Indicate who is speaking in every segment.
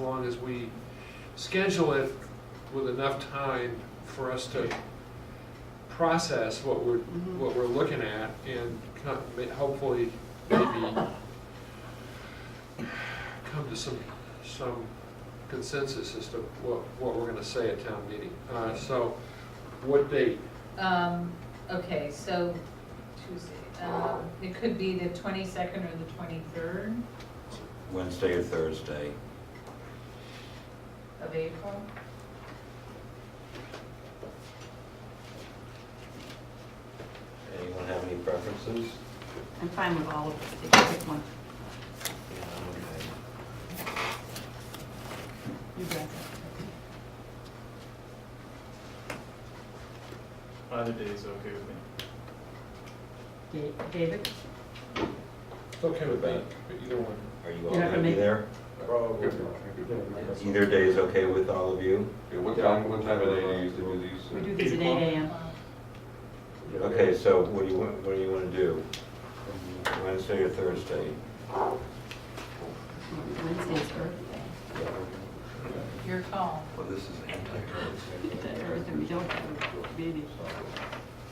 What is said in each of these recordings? Speaker 1: long as we schedule it with enough time for us to process what we're,
Speaker 2: Mhm.
Speaker 1: what we're looking at and co- ma- hopefully maybe come to some, some consensus as to what, what we're gonna say at town meeting. Uh, so, what date?
Speaker 3: Um, okay, so Tuesday, um, it could be the twenty-second or the twenty-third
Speaker 4: Wednesday or Thursday.
Speaker 3: of April.
Speaker 4: Anyone have any preferences?
Speaker 2: I'm fine with all of it, if you pick one.
Speaker 4: Yeah, I'm
Speaker 2: You guys.
Speaker 5: Either day is okay with me.
Speaker 2: Da- David?
Speaker 1: It's okay with me, either one.
Speaker 4: okay. Are you all
Speaker 2: You're
Speaker 4: gonna
Speaker 2: not gonna
Speaker 4: be
Speaker 2: make-
Speaker 4: there?
Speaker 6: Probably.
Speaker 4: Either day is okay with all of you?
Speaker 6: Yeah, what time, what time of day do you usually do these?
Speaker 2: We do these at eight AM.
Speaker 3: Um,
Speaker 4: Okay, so what do you want, what do you wanna do? Wednesday or Thursday?
Speaker 2: Wednesday's birthday.
Speaker 3: Your call.
Speaker 4: Well, this is
Speaker 2: Thursday, we don't have a meeting.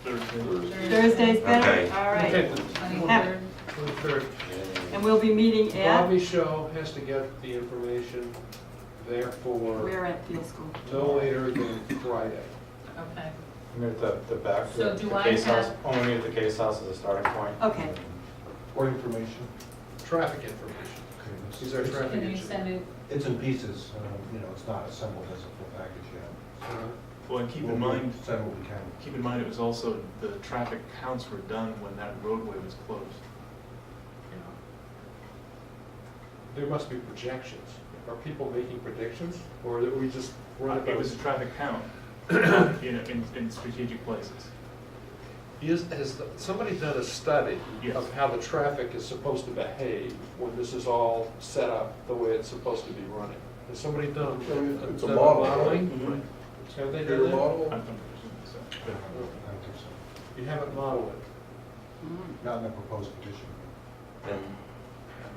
Speaker 5: Thursday.
Speaker 2: Thursday's
Speaker 4: Okay.
Speaker 2: better, all
Speaker 1: Okay,
Speaker 2: right.
Speaker 3: Twenty-third.
Speaker 1: twenty-third.
Speaker 2: And we'll be meeting at,
Speaker 1: Bobby Show has to get the information there for
Speaker 2: we're at field school.
Speaker 1: no later than Friday.
Speaker 3: Okay.
Speaker 6: The, the back,
Speaker 3: So do I have,
Speaker 6: only at the case house is a starting point.
Speaker 2: Okay,
Speaker 7: Or information.
Speaker 1: Traffic information. These are traffic
Speaker 3: can you
Speaker 1: engineers.
Speaker 3: send it,
Speaker 7: It's in pieces, uh, you know, it's not assembled as a full package yet.
Speaker 1: Uh,
Speaker 5: Well, and keep
Speaker 7: We'll
Speaker 5: in mind,
Speaker 7: Send what we can.
Speaker 5: keep in mind, it was also, the traffic counts were done when that roadway was closed.
Speaker 1: There must be projections. Are people making predictions or that we just run
Speaker 5: It
Speaker 1: about?
Speaker 5: was a traffic count, you know, in, in strategic places.
Speaker 1: Is, has the- somebody done a study
Speaker 5: Yes.
Speaker 1: of how the traffic is supposed to behave when this is all set up the way it's supposed to be running? Has somebody done
Speaker 7: It's a
Speaker 1: done
Speaker 7: model, right?
Speaker 1: modeling?
Speaker 5: Right.
Speaker 1: Mm-hmm. Have they
Speaker 7: Your
Speaker 1: done that?
Speaker 5: I'm
Speaker 7: model?
Speaker 5: from Virginia,
Speaker 7: I don't think so.
Speaker 1: You haven't modeled it.
Speaker 2: Mm.
Speaker 7: Not in the proposed petition.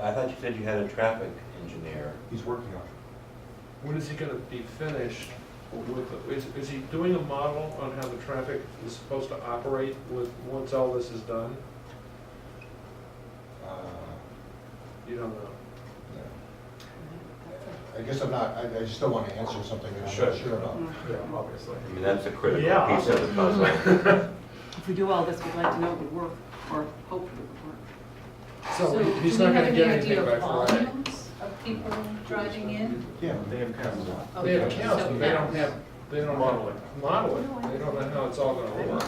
Speaker 4: I thought you said you had a traffic engineer.
Speaker 7: He's working on it.
Speaker 1: When is he gonna be finished with, is, is he doing a model on how the traffic is supposed to operate with, once all this is done?
Speaker 7: Uh,
Speaker 1: You don't know.
Speaker 7: yeah. I guess I'm not, I, I just don't want to answer something that I'm not
Speaker 4: Sure.
Speaker 7: sure about.
Speaker 3: Mm.
Speaker 5: so, yeah, obviously.
Speaker 4: I mean, that's a critical
Speaker 1: Yeah.
Speaker 4: piece of the puzzle.
Speaker 2: If we do all this, we'd like to know it would work, or hope it would work.
Speaker 1: So
Speaker 3: so do
Speaker 1: he's
Speaker 3: we
Speaker 1: not
Speaker 3: have
Speaker 1: gonna
Speaker 3: any
Speaker 1: get anything
Speaker 3: idea
Speaker 1: by
Speaker 3: of
Speaker 1: Friday.
Speaker 3: volumes of people driving in?
Speaker 7: Yeah.
Speaker 5: They have counts.
Speaker 1: They have
Speaker 3: Okay,
Speaker 1: accounts,
Speaker 3: so
Speaker 1: but they don't
Speaker 3: counts.
Speaker 1: have, they don't model it, model it, they don't know how it's all gonna work.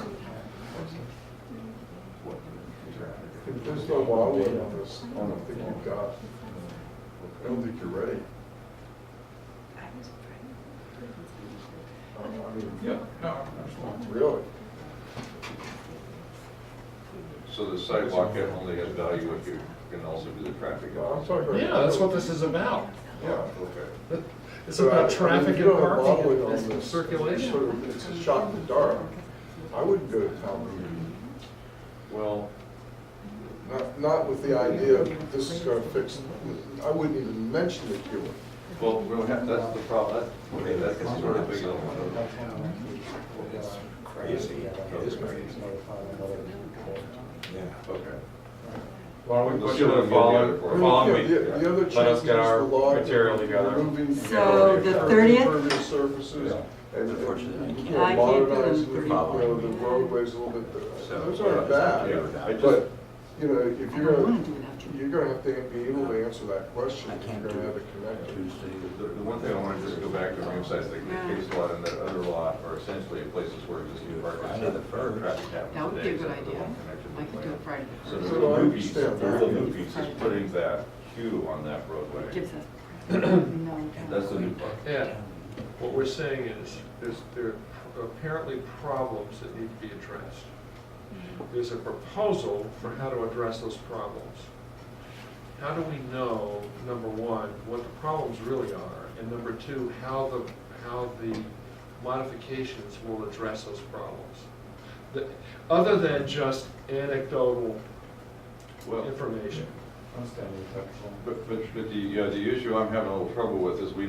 Speaker 8: If there's no model on this, I don't think you've got, I don't think you're ready. I mean,
Speaker 6: Yeah.
Speaker 8: really.
Speaker 6: So the sidewalk only has value if you can also do the traffic.
Speaker 8: Yeah, I'm talking about-
Speaker 1: Yeah, that's what this is about.
Speaker 8: Yeah, okay.
Speaker 1: It's
Speaker 8: So I- I
Speaker 1: about
Speaker 8: mean,
Speaker 1: traffic and
Speaker 8: you don't have
Speaker 1: parking
Speaker 8: modeling
Speaker 1: and
Speaker 8: on
Speaker 1: this
Speaker 8: this. It's
Speaker 1: circulation.
Speaker 8: sort of- It's a shot in the dark. I wouldn't go to town meeting,
Speaker 6: Well,
Speaker 8: not, not with the idea of this is gonna fix, I wouldn't even mention it to you.
Speaker 6: well, we'll have, that's the problem, that, okay, that's the sort of big one.
Speaker 4: It's crazy.
Speaker 6: It is crazy.
Speaker 4: Yeah.
Speaker 6: Okay.
Speaker 9: Why don't we
Speaker 6: Let's
Speaker 9: push
Speaker 6: do
Speaker 9: it
Speaker 6: it
Speaker 9: the
Speaker 6: the
Speaker 9: following,
Speaker 6: other part.
Speaker 9: following
Speaker 8: Yeah,
Speaker 9: week?
Speaker 8: the- the other
Speaker 9: Let us
Speaker 8: change
Speaker 9: get
Speaker 8: is
Speaker 9: our
Speaker 8: the law
Speaker 9: material together.
Speaker 8: removing
Speaker 2: So the
Speaker 8: curb-
Speaker 2: 30th?
Speaker 8: Impervious surfaces and,
Speaker 4: Unfortunately, I
Speaker 8: and,
Speaker 4: can't.
Speaker 8: you
Speaker 2: I
Speaker 8: know,
Speaker 2: can't do them
Speaker 8: modernize, the, you
Speaker 2: 30th.
Speaker 8: know, the roadways a little bit,
Speaker 4: So,
Speaker 8: those
Speaker 4: yeah,
Speaker 8: aren't
Speaker 4: yeah,
Speaker 8: bad.
Speaker 4: without-
Speaker 8: But, you know, if
Speaker 2: I
Speaker 8: you're,
Speaker 2: don't want to
Speaker 8: gonna-
Speaker 2: do it without you.
Speaker 8: you're gonna have to be able to answer that question,
Speaker 4: I
Speaker 8: if
Speaker 4: can't
Speaker 8: you're
Speaker 4: do
Speaker 8: gonna have
Speaker 4: it
Speaker 8: it connected.
Speaker 4: Tuesday.
Speaker 6: The, the one thing I want to just go back to reemphasize, the the case lot and that other lot are essentially places where existing parking.
Speaker 4: Friday the first.
Speaker 6: Traffic happens
Speaker 2: That would be a
Speaker 6: today,
Speaker 2: good
Speaker 6: except for the
Speaker 2: idea.
Speaker 6: one connected to
Speaker 2: I
Speaker 6: the
Speaker 2: could do
Speaker 6: plant.
Speaker 2: it Friday the
Speaker 6: So
Speaker 2: first.
Speaker 6: the
Speaker 8: So I
Speaker 6: new piece, the
Speaker 8: understand that.
Speaker 6: new piece is putting that queue on that roadway.
Speaker 2: It Gives us. no
Speaker 6: That's the new
Speaker 2: time.
Speaker 6: part.
Speaker 1: Yeah, what we're saying is, there's, there are apparently problems that need to be addressed. There's a proposal for how to address those problems. How do we know, number one, what the problems really are, and number two, how the, how the modifications will address those problems? The- Other than just anecdotal
Speaker 6: Well,
Speaker 1: information.
Speaker 6: but, but, but the, uh, the issue I'm having a little trouble with is we